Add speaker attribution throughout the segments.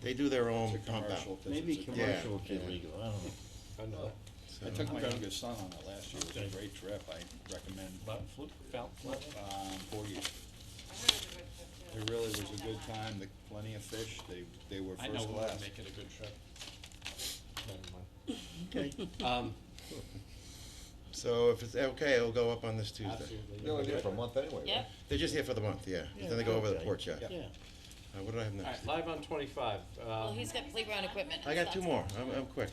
Speaker 1: They do their
Speaker 2: It's a
Speaker 1: own pump
Speaker 2: commercial,
Speaker 1: out.
Speaker 2: 'cause
Speaker 3: Maybe
Speaker 2: it's a-
Speaker 3: commercial would be
Speaker 1: yeah.
Speaker 3: legal, I don't know.
Speaker 4: I know.
Speaker 1: so-
Speaker 2: I took my youngest son on it last year, it was a great trip, I recommend,
Speaker 4: But flip, felt, flip.
Speaker 2: um, Portage. It really was a good time, the, plenty of fish, they, they were
Speaker 4: I know
Speaker 2: first
Speaker 4: we would
Speaker 2: class.
Speaker 4: make it a good trip. Never
Speaker 1: Okay,
Speaker 4: mind. Um,
Speaker 1: so if it's okay, it'll go up on this Tuesday.
Speaker 4: absolutely.
Speaker 5: You're only there for a month anyway, right?
Speaker 6: Yep.
Speaker 1: They're just here for the month, yeah. Then they go over the
Speaker 5: okay.
Speaker 1: porch, yeah.
Speaker 2: Yeah.
Speaker 3: Yeah,
Speaker 1: Uh, what do I have next?
Speaker 4: Alright, live on twenty-five,
Speaker 6: Well,
Speaker 4: um,
Speaker 6: he's got playground equipment.
Speaker 1: I got two more, I'm, I'm quick.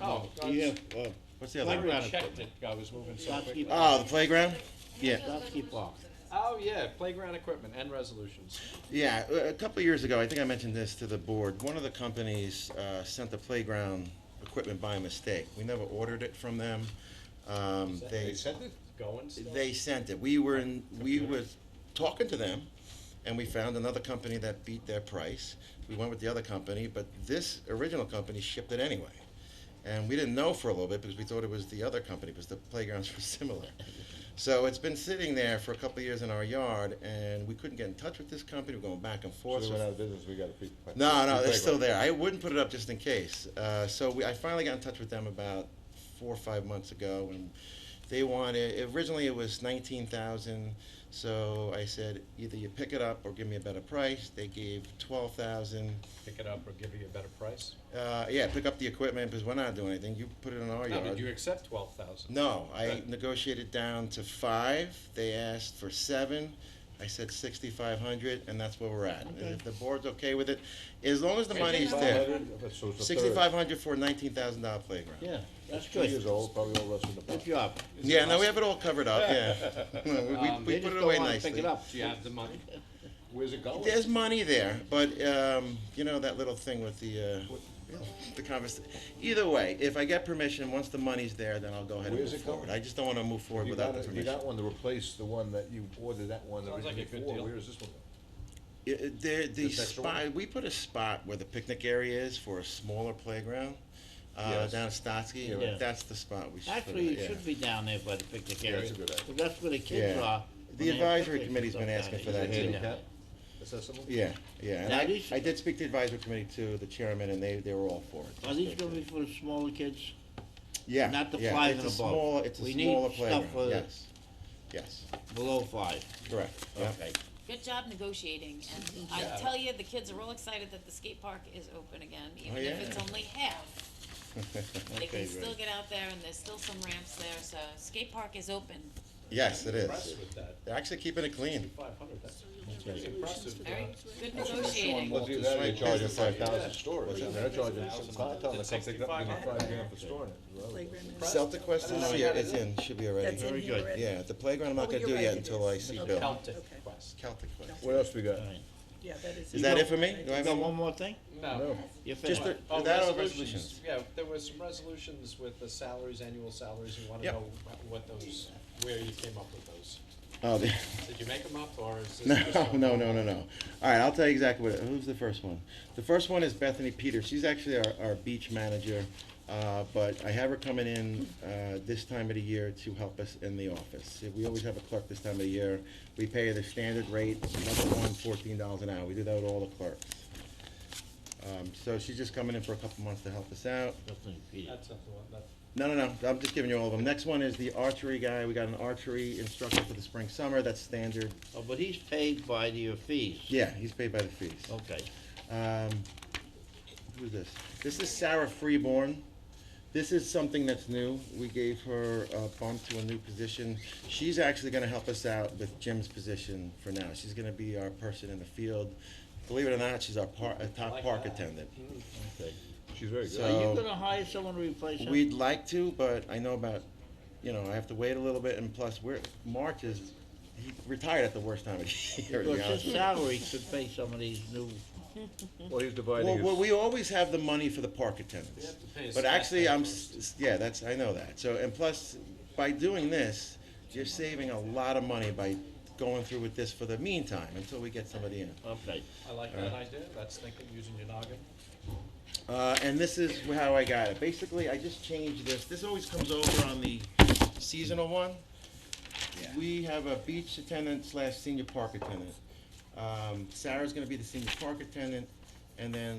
Speaker 4: oh,
Speaker 3: do you
Speaker 4: I
Speaker 3: have, uh,
Speaker 1: What's the
Speaker 4: I
Speaker 1: other? one?
Speaker 3: Playground
Speaker 4: already checked it, I was moving so quick.
Speaker 3: Shopkeep-
Speaker 1: Oh, the playground? Yeah.
Speaker 3: Shopkeep Box?
Speaker 4: Oh, yeah, playground equipment and resolutions.
Speaker 1: Yeah, a- a couple of years ago, I think I mentioned this to the board, one of the companies uh, sent the playground equipment by mistake. We never ordered it from them. Um,
Speaker 5: They sent it?
Speaker 4: Going still?
Speaker 1: They sent it. We were in, we was talking to them, and we found another company that beat their price. We went with the other company, but this original company shipped it anyway. And we didn't know for a little bit because we thought it was the other company because the playgrounds were similar. So it's been sitting there for a couple of years in our yard, and we couldn't get in touch with this company. We're going back and
Speaker 5: So
Speaker 1: forth.
Speaker 5: they went out of business, we got a free.
Speaker 1: No, no,
Speaker 5: free
Speaker 1: it's still
Speaker 5: playground.
Speaker 1: there. I wouldn't put it up just in case. Uh, so we, I finally got in touch with them about four or five months ago, and they wanted originally it was nineteen thousand. So I said either you pick it up or give me a better price. They gave twelve thousand.
Speaker 4: Pick it up or give you a better price?
Speaker 1: Uh, yeah, pick up the equipment because we're not doing anything. You put it in our
Speaker 4: No,
Speaker 1: yard.
Speaker 4: did you accept twelve thousand?
Speaker 1: No, I
Speaker 4: Right.
Speaker 1: negotiated down to five, they asked for seven, I said sixty-five hundred, and that's where we're at. And if the board's okay with it, as long as the money's there,
Speaker 5: 500, so it's a third.
Speaker 1: sixty-five hundred for a nineteen thousand dollar playground.
Speaker 3: Yeah, that's
Speaker 5: Two years
Speaker 3: good.
Speaker 5: old, probably all rusted
Speaker 3: Good
Speaker 5: apart.
Speaker 3: job.
Speaker 1: Yeah, no, we have it all covered up, yeah. We-
Speaker 4: Um,
Speaker 1: We, we
Speaker 3: They
Speaker 1: put
Speaker 3: just
Speaker 1: it
Speaker 3: don't
Speaker 1: away
Speaker 3: wanna Pick
Speaker 1: nicely.
Speaker 3: it up.
Speaker 4: Do you have the money?
Speaker 5: Where's it going?
Speaker 1: There's money there, but, um, you know, that little thing with the, uh, the convers, either way, if I get permission, once the money's there, then I'll go ahead and
Speaker 5: Where's
Speaker 1: move
Speaker 5: it going?
Speaker 1: forward. I just don't wanna move
Speaker 5: If
Speaker 1: forward
Speaker 5: You
Speaker 1: without
Speaker 5: got,
Speaker 1: the
Speaker 5: a- if you
Speaker 1: permission.
Speaker 5: got one to replace the one that you ordered, that one
Speaker 4: Sounds like
Speaker 5: originally
Speaker 4: a good
Speaker 5: for,
Speaker 4: deal.
Speaker 5: where is this one going?
Speaker 1: Yeah, it- There, the
Speaker 5: This extra one?
Speaker 1: spot, we put a spot where the picnic area is for a smaller playground, uh,
Speaker 5: Yes.
Speaker 1: down at Stotsky,
Speaker 3: Yeah.
Speaker 1: that's the spot we should put
Speaker 3: Actually,
Speaker 1: it,
Speaker 3: it
Speaker 1: yeah.
Speaker 3: should be down there by the picnic area.
Speaker 5: that's a good idea.
Speaker 3: Because that's where the kids
Speaker 1: Yeah.
Speaker 3: are. when
Speaker 1: The
Speaker 3: they have
Speaker 1: advisory
Speaker 3: picnics and
Speaker 1: committee's been
Speaker 3: stuff
Speaker 1: asking
Speaker 3: down
Speaker 1: for
Speaker 3: there.
Speaker 1: that
Speaker 3: It's
Speaker 1: handicap.
Speaker 3: down
Speaker 5: Accessible?
Speaker 1: Yeah, yeah, and
Speaker 3: Now,
Speaker 1: I,
Speaker 3: these-
Speaker 1: I did speak to advisory committee too, the chairman, and they, they were all for it.
Speaker 3: there. Are these gonna be for the smaller kids?
Speaker 1: Yeah,
Speaker 3: not the
Speaker 1: yeah,
Speaker 3: five
Speaker 1: it's
Speaker 3: and
Speaker 1: a
Speaker 3: above?
Speaker 1: small- It's a
Speaker 3: We need
Speaker 1: smaller
Speaker 3: stuff
Speaker 1: playground,
Speaker 3: for-
Speaker 1: yes, yes,
Speaker 3: Below five,
Speaker 1: correct, yeah.
Speaker 3: okay.
Speaker 6: Good job negotiating, and I tell you, the kids are all excited that the skate park is open again, even if it's
Speaker 1: Oh, yeah.
Speaker 6: only half. They
Speaker 3: Okay,
Speaker 6: can still
Speaker 3: great.
Speaker 6: get out there, and there's still some ramps there, so skate park is open.
Speaker 1: Yes, it is,
Speaker 4: Impressed with that,
Speaker 1: they're actually keeping it clean.
Speaker 4: five hundred, that's pretty impressive.
Speaker 6: Very good
Speaker 2: Sean
Speaker 6: negotiating.
Speaker 2: Walt
Speaker 5: Well, either
Speaker 2: is
Speaker 5: that or
Speaker 2: right
Speaker 5: they're charging
Speaker 1: business
Speaker 5: five
Speaker 4: idea.
Speaker 5: thousand storage, I mean, they're charging,
Speaker 4: Thousand.
Speaker 5: I tell them,
Speaker 4: It's
Speaker 5: come pick it up, you get
Speaker 4: 65.
Speaker 5: five grand for storing it. Well,
Speaker 1: Celtic Quest
Speaker 4: I
Speaker 1: is
Speaker 4: don't know
Speaker 1: here,
Speaker 4: how to
Speaker 1: it's
Speaker 4: do
Speaker 1: in, should be already.
Speaker 7: That's in here already.
Speaker 1: Yeah, the playground I'm
Speaker 7: Oh,
Speaker 1: not gonna
Speaker 7: you're
Speaker 1: do
Speaker 7: right,
Speaker 1: yet
Speaker 7: it
Speaker 1: until I
Speaker 7: is.
Speaker 1: see
Speaker 7: Okay.
Speaker 1: Bill.
Speaker 4: Celtic
Speaker 7: Okay.
Speaker 4: Quest.
Speaker 1: Celtic Quest.
Speaker 5: What else we got?
Speaker 3: Alright.
Speaker 7: Yeah, that is.
Speaker 1: Is that it for me? Do I
Speaker 3: You
Speaker 1: have
Speaker 3: got
Speaker 1: any more?
Speaker 3: one more thing?
Speaker 4: No.
Speaker 3: You're
Speaker 1: Just
Speaker 3: finished?
Speaker 1: the-
Speaker 4: Oh,
Speaker 1: that or
Speaker 4: resolutions, yeah, there were some resolutions with the salaries, annual salaries, we wanna
Speaker 1: Yep.
Speaker 4: know wh- what those, where you came up with those.
Speaker 1: Oh, the-
Speaker 4: Did you make them up, or is
Speaker 1: No,
Speaker 4: this just?
Speaker 1: no, no, no, no. All right, I'll tell you exactly what. Who's the first one? The first one is Bethany Peters. She's actually our, our beach manager, uh, but I have her coming in uh, this time of the year to help us in the office. We always have a clerk this time of the year. We pay her the standard rate, number one, fourteen dollars an hour. We do that with all the clerks. Um, so she's just coming in for a couple months to help us out.
Speaker 3: Nothing, Peter.
Speaker 4: That's not the one, that,
Speaker 1: No, no, no, I'm just giving you all of them. Next one is the archery guy. We got an archery instructor for the spring, summer. That's standard.
Speaker 3: Oh, but he's paid by the fees.
Speaker 1: Yeah, he's paid by the fees.
Speaker 3: Okay.
Speaker 1: Um, who's this? This is Sarah Freeborn. This is something that's new. We gave her a bump to a new position. She's actually gonna help us out with Jim's position for now. She's gonna be our person in the field. Believe it or not, she's our par, a
Speaker 4: I
Speaker 1: top
Speaker 4: like
Speaker 1: park
Speaker 4: that.
Speaker 1: attendant.
Speaker 5: She's very
Speaker 1: So-
Speaker 5: good.
Speaker 3: Are you gonna hire someone to replace him?
Speaker 1: We'd like to, but I know about, you know, I have to wait a little bit and plus we're, March is, he retired at the worst time of the year, to be
Speaker 3: Because
Speaker 1: honest with
Speaker 3: his
Speaker 1: you.
Speaker 3: salary could pay some of these new,
Speaker 5: Well, he's dividing
Speaker 1: Well,
Speaker 5: his.
Speaker 1: well, we always have the money for the park attendants.
Speaker 4: We have to pay a
Speaker 1: But
Speaker 4: staff
Speaker 1: actually, I'm,
Speaker 4: member.
Speaker 1: s- yeah, that's, I know that. So, and plus, by doing this, you're saving a lot of money by going through with this for the meantime, until we get somebody in.
Speaker 3: okay.
Speaker 4: I like that idea, that's thinking, using your noggin.
Speaker 1: Uh, and this is how I got it. Basically, I just changed this. This always comes over on the seasonal one. We have a beach attendant slash senior park attendant. Um, Sarah's gonna be the senior park attendant, and then